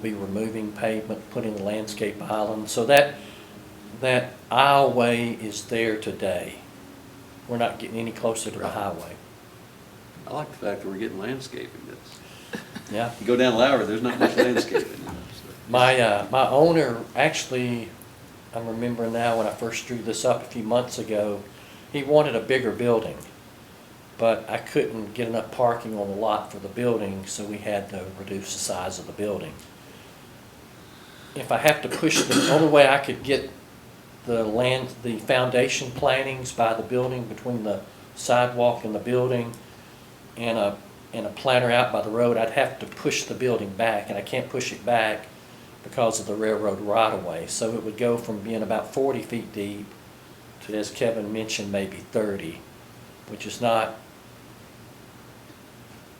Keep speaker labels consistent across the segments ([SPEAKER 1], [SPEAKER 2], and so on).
[SPEAKER 1] be removing pavement, putting a landscape island, so that, that aisleway is there today. We're not getting any closer to the
[SPEAKER 2] Right.
[SPEAKER 1] highway,
[SPEAKER 2] I like the fact that we're getting landscaping. That's,
[SPEAKER 1] yeah.
[SPEAKER 2] you go down Lowry, there's not much landscaping. you know, so.
[SPEAKER 1] My, uh, my owner, actually, I'm remembering now when I first drew this up a few months ago, he wanted a bigger building. But I couldn't get enough parking on the lot for the building, so we had to reduce the size of the building. If I have to push, the only way I could get the land, the foundation plantings by the building, between the sidewalk and the building, and a, and a planter out by the road, I'd have to push the building back, and I can't push it back because of the railroad right of way. So it would go from being about forty feet deep to, as Kevin mentioned, maybe thirty, which is not,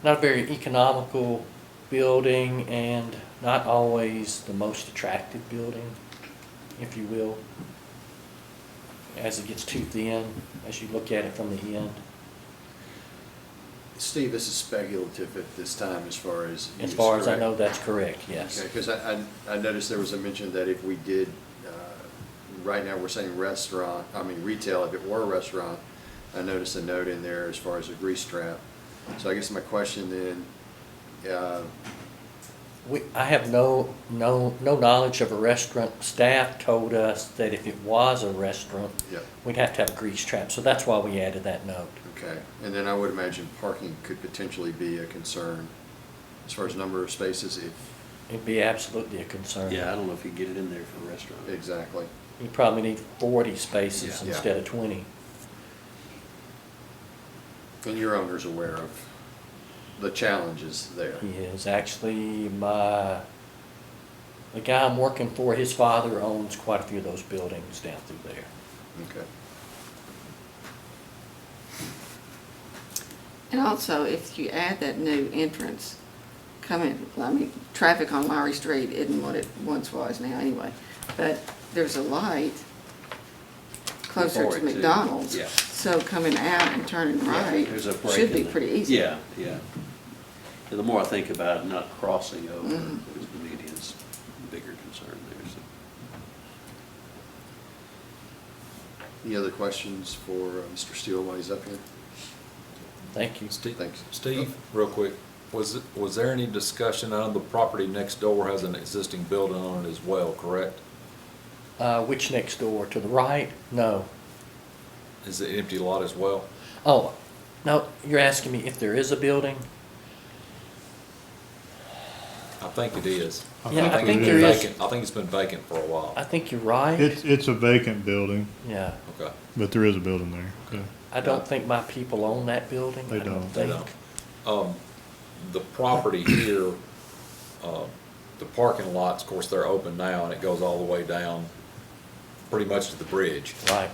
[SPEAKER 1] not a very economical building and not always the most attractive building, if you will, as it gets too thin, as you look at it from the end.
[SPEAKER 3] Steve, this is speculative at this time as far as.
[SPEAKER 1] As
[SPEAKER 3] use,
[SPEAKER 1] far as I
[SPEAKER 3] correct?
[SPEAKER 1] know, that's correct, yes.
[SPEAKER 3] Okay, because I, I- I noticed there was a mention that if we did, uh, right now we're saying restaurant, I mean retail, if it were a restaurant, I noticed a note in there as far as a grease trap. So I guess my question then, uh,
[SPEAKER 1] We, I have no, no, no knowledge of a restaurant. Staff told us that if it was a restaurant,
[SPEAKER 3] yeah,
[SPEAKER 1] we'd have to have a grease trap, so that's why we added that note.
[SPEAKER 3] okay. And then I would imagine parking could potentially be a concern as far as number of spaces, if,
[SPEAKER 1] It'd be absolutely a concern.
[SPEAKER 2] Yeah, I don't know if you get it in there for a restaurant.
[SPEAKER 3] exactly.
[SPEAKER 1] You probably need forty spaces
[SPEAKER 3] Yeah.
[SPEAKER 1] instead of twenty.
[SPEAKER 3] And your owner's aware of the challenges there.
[SPEAKER 1] He is actually my, the guy I'm working for, his father owns quite a few of those buildings down through there.
[SPEAKER 3] Okay.
[SPEAKER 4] And also, if you add that new entrance coming, I mean, traffic on Lowry Street isn't what it once was now anyway, but there's a light closer
[SPEAKER 2] Before it,
[SPEAKER 4] to
[SPEAKER 2] too.
[SPEAKER 4] McDonald's.
[SPEAKER 2] Yeah.
[SPEAKER 4] So coming out and turning
[SPEAKER 2] Yeah,
[SPEAKER 4] right
[SPEAKER 2] There's a break
[SPEAKER 4] should
[SPEAKER 2] in
[SPEAKER 4] be
[SPEAKER 2] the-
[SPEAKER 4] pretty easy.
[SPEAKER 2] Yeah, yeah. And the more I think about it, not crossing over, is the
[SPEAKER 4] Mm-hmm.
[SPEAKER 2] median's bigger concern there, so.
[SPEAKER 3] Any other questions for uh, Mr. Steele while he's up here?
[SPEAKER 1] Thank you.
[SPEAKER 5] Steve,
[SPEAKER 3] Thanks.
[SPEAKER 5] Steve, real quick, was, it- was there any discussion, I know the property next door has an existing building on it as well, correct?
[SPEAKER 1] Uh, which next door, to the right? No.
[SPEAKER 5] Is it empty lot as well?
[SPEAKER 1] Oh, no, you're asking me if there is a building?
[SPEAKER 5] I think it is.
[SPEAKER 1] Yeah, I
[SPEAKER 5] it's
[SPEAKER 1] think
[SPEAKER 5] been
[SPEAKER 1] there is.
[SPEAKER 5] vacant- I think it's been vacant for a
[SPEAKER 1] I
[SPEAKER 5] while.
[SPEAKER 1] think you're right.
[SPEAKER 6] It's, it's a vacant building,
[SPEAKER 1] Yeah.
[SPEAKER 5] Okay,
[SPEAKER 6] but there is a building there. Okay.
[SPEAKER 1] I don't think my people own that building.
[SPEAKER 6] They
[SPEAKER 1] I
[SPEAKER 6] don't.
[SPEAKER 5] they
[SPEAKER 1] think.
[SPEAKER 5] don't. Um, the property here, uh, the parking lots, of course, they're open now and it goes all the way down pretty much to the bridge.
[SPEAKER 1] Right,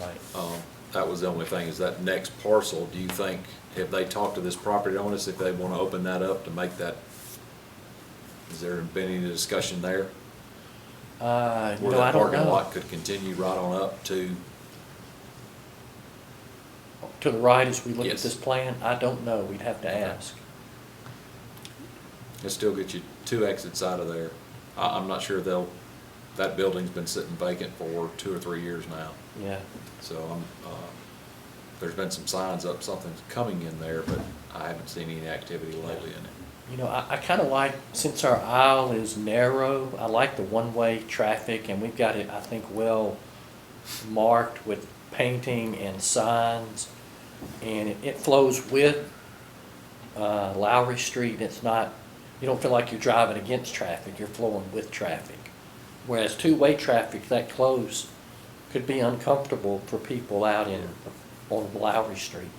[SPEAKER 1] right.
[SPEAKER 5] Um, That was the only thing, is that next parcel, do you think, if they talk to this property owners, if they want to open that up to make that, has there been any discussion there?
[SPEAKER 1] Uh,
[SPEAKER 5] Where
[SPEAKER 1] no, I
[SPEAKER 5] that
[SPEAKER 1] don't
[SPEAKER 5] parking
[SPEAKER 1] know.
[SPEAKER 5] lot could continue right on up to,
[SPEAKER 1] To the right as we look at
[SPEAKER 5] Yes.
[SPEAKER 1] this plan, I don't know. We'd have to
[SPEAKER 5] Okay.
[SPEAKER 1] ask.
[SPEAKER 5] it still get you two exits out of there. I, I'm not sure they'll, that building's been sitting vacant for two or three years now.
[SPEAKER 1] Yeah.
[SPEAKER 5] So I'm, uh, there's been some signs up, something's coming in there, but I haven't seen any activity lately in it.
[SPEAKER 1] You know, I, I kind of like, since our aisle is narrow, I like the one-way traffic and we've got it, I think, well marked with painting and signs. And it, it flows with, uh, Lowry Street. It's not, you don't feel like you're driving against traffic, you're flowing with traffic. Whereas two-way traffic that close could be uncomfortable for people out in, on Lowry Street.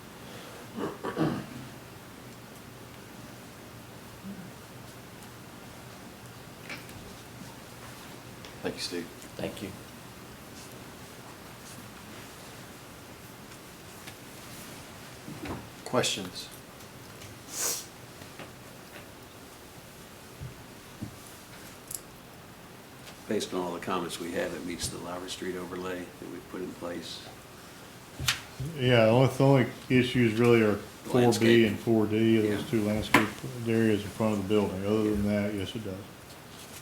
[SPEAKER 3] Thank you, Steve.
[SPEAKER 1] Thank you.
[SPEAKER 3] Questions?
[SPEAKER 2] Based on all the comments we have, it meets the Lowry Street overlay that we've put in place.
[SPEAKER 6] Yeah, only, the only issues really are four B
[SPEAKER 2] Landscape.
[SPEAKER 6] and four D,
[SPEAKER 2] Yeah.
[SPEAKER 6] those two landscape areas in front of the building. Other than that, yes, it does.